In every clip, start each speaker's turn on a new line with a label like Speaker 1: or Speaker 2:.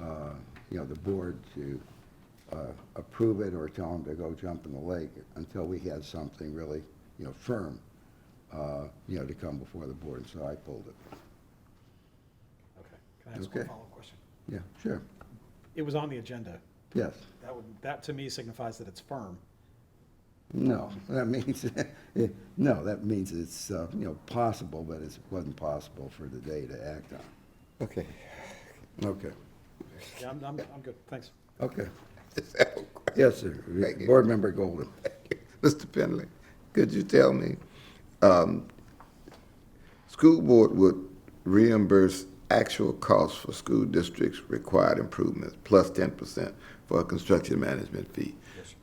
Speaker 1: uh, you know, the board to uh, approve it or tell them to go jump in the lake until we had something really, you know, firm, uh, you know, to come before the board, so I pulled it.
Speaker 2: Okay. Can I ask one
Speaker 1: Okay.
Speaker 2: follow-up question?
Speaker 1: Yeah, sure,
Speaker 2: It was on the agenda.
Speaker 1: yes.
Speaker 2: That would, that to me signifies that it's firm.
Speaker 1: No, that means, eh, no, that means it's, uh, you know, possible, but it wasn't possible for the day to act on.
Speaker 3: Okay.
Speaker 1: Okay,
Speaker 2: Yeah, I'm, I'm, I'm good, thanks.
Speaker 1: okay.
Speaker 3: Just have a question.
Speaker 1: Yes, sir.
Speaker 3: Thank you.
Speaker 1: Board Member Golden.
Speaker 3: Mr. Penley, could you tell me, um, school board would reimburse actual costs for school districts required improvements plus ten percent for a construction management fee?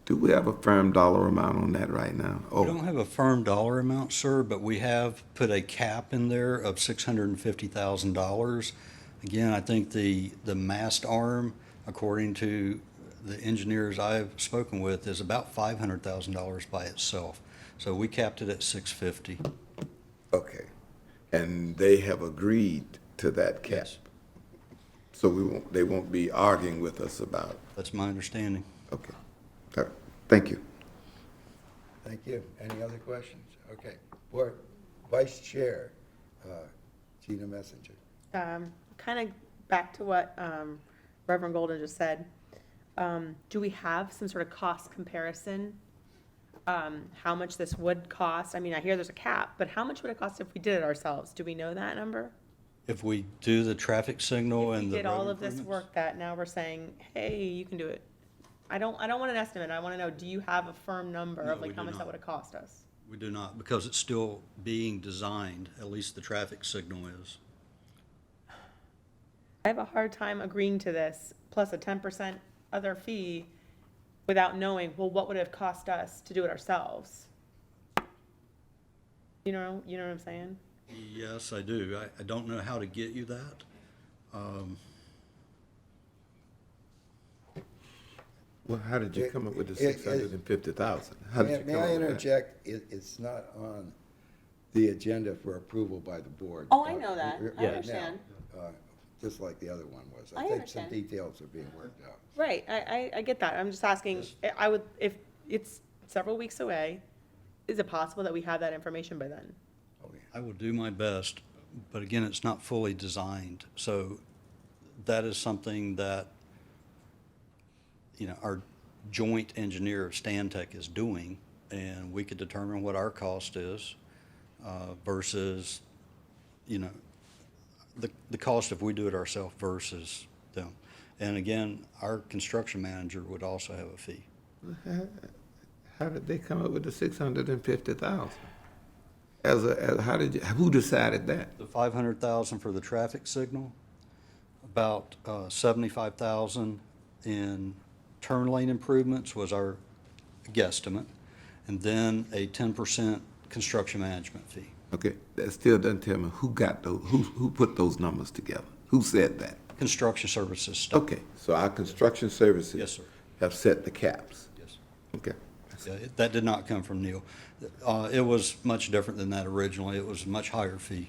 Speaker 3: Do we have a firm dollar amount on that right now?
Speaker 4: We
Speaker 3: Oh,
Speaker 4: don't have a firm dollar amount, sir, but we have put a cap in there of $650,000. Again, I think the, the mast arm, according to the engineers I've spoken with, is about $500,000 by itself. So we capped it at 650.
Speaker 3: okay. And they have agreed to that cap?
Speaker 4: Yes.
Speaker 3: So we won't, they won't be arguing with us about, it.
Speaker 4: That's my understanding.
Speaker 3: okay. All right. Thank you.
Speaker 1: Thank you. Any other questions? Okay. Board Vice Chair, uh, Gina Messenger.
Speaker 5: um, kind of back to what um, Reverend Golden just said, um, do we have some sort of cost comparison? Um, How much this would cost? I mean, I hear there's a cap, but how much would it cost if we did it ourselves? Do we know that number?
Speaker 4: If we do the traffic signal
Speaker 5: We
Speaker 4: and the
Speaker 5: did all
Speaker 4: road
Speaker 5: of this
Speaker 4: improvements-
Speaker 5: work that now we're saying, hey, you can do it. I don't, I don't want an estimate. I want to know, do you have a firm number
Speaker 4: No,
Speaker 5: of
Speaker 4: we
Speaker 5: like how
Speaker 4: do
Speaker 5: much that
Speaker 4: not.
Speaker 5: would have cost us?
Speaker 4: We do not, because it's still being designed, at least the traffic signal is.
Speaker 5: I have a hard time agreeing to this, plus a ten percent other fee, without knowing, well, what would it have cost us to do it ourselves? You know, you know what I'm saying?
Speaker 4: Yes, I do. I, I don't know how to get you that.
Speaker 3: Well, how did you come up with the
Speaker 1: It- it-
Speaker 3: six hundred and fifty thousand?
Speaker 1: May may I interject? It, it's not on the agenda for approval by the board. Uh,
Speaker 5: Oh, I know that. I
Speaker 1: Right now,
Speaker 5: understand.
Speaker 1: uh, Just like the other one was.
Speaker 5: I
Speaker 1: think some
Speaker 5: understand.
Speaker 1: details are being worked out.
Speaker 5: Right, I, I, I get that, I'm just asking, I- I would, if it's several weeks away, is it possible that we have that information by then?
Speaker 4: I will do my best, but again, it's not fully designed, so that is something that, you know, our joint engineer of Stantec is doing, and we could determine what our cost is uh, versus, you know, the, the cost if we do it ourselves versus them. And again, our construction manager would also have a fee.
Speaker 3: How did they come up with the six hundred and fifty thousand? As a, as, how did you, who decided that?
Speaker 4: The five hundred thousand for the traffic signal, about uh, seventy-five thousand in turn lane improvements was our guesstimate, and then a ten percent construction management fee.
Speaker 3: Okay, that still doesn't tell me who got those, who, who put those numbers together? Who said that?
Speaker 4: Construction services stuff.
Speaker 3: Okay, so our construction services.
Speaker 4: Yes, sir.
Speaker 3: Have set the caps.
Speaker 4: Yes.
Speaker 3: Okay.
Speaker 4: Yeah, it- That did not come from Neil. Uh, It was much different than that originally. It was a much higher fee.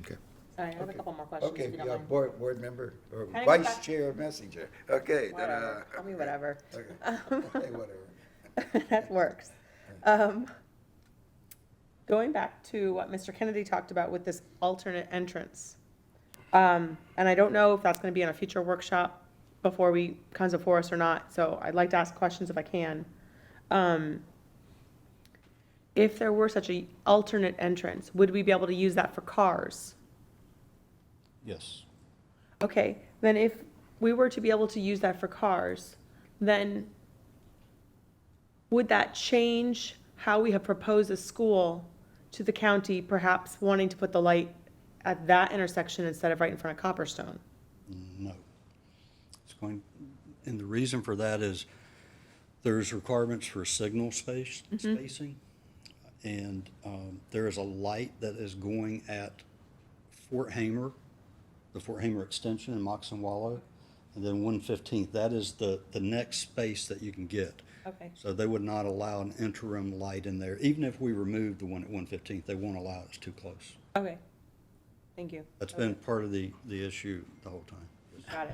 Speaker 3: Okay.
Speaker 5: Sorry, I have a couple more questions,
Speaker 1: Okay,
Speaker 5: if you
Speaker 1: uh,
Speaker 5: don't mind.
Speaker 1: board, board member, or
Speaker 5: I go
Speaker 1: vice
Speaker 5: back?
Speaker 1: chair messenger. Okay. da-da.
Speaker 5: Whatever, call me whatever.
Speaker 1: Okay, Okay, whatever.
Speaker 5: that works. Um, Going back to what Mr. Kennedy talked about with this alternate entrance. Um, And I don't know if that's going to be on a future workshop before we, comes before us or not, so I'd like to ask questions if I can. Um, If there were such a alternate entrance, would we be able to use that for cars?
Speaker 4: Yes.
Speaker 5: Okay, then if we were to be able to use that for cars, then would that change how we have proposed a school to the county, perhaps wanting to put the light at that intersection instead of right in front of Copperstone?
Speaker 4: No. It's going, and the reason for that is there's requirements for signal space,
Speaker 5: Mm-hmm.
Speaker 4: spacing. And um, there is a light that is going at Fort Hamer, the Fort Hamer extension in Moxon Wallow, and then 115th. That is the, the next space that you can get.
Speaker 5: Okay.
Speaker 4: So they would not allow an interim light in there. Even if we removed the one at 115th, they won't allow it. It's too close.
Speaker 5: Okay, thank you.
Speaker 4: That's been part of the, the issue the whole time.
Speaker 5: Got it.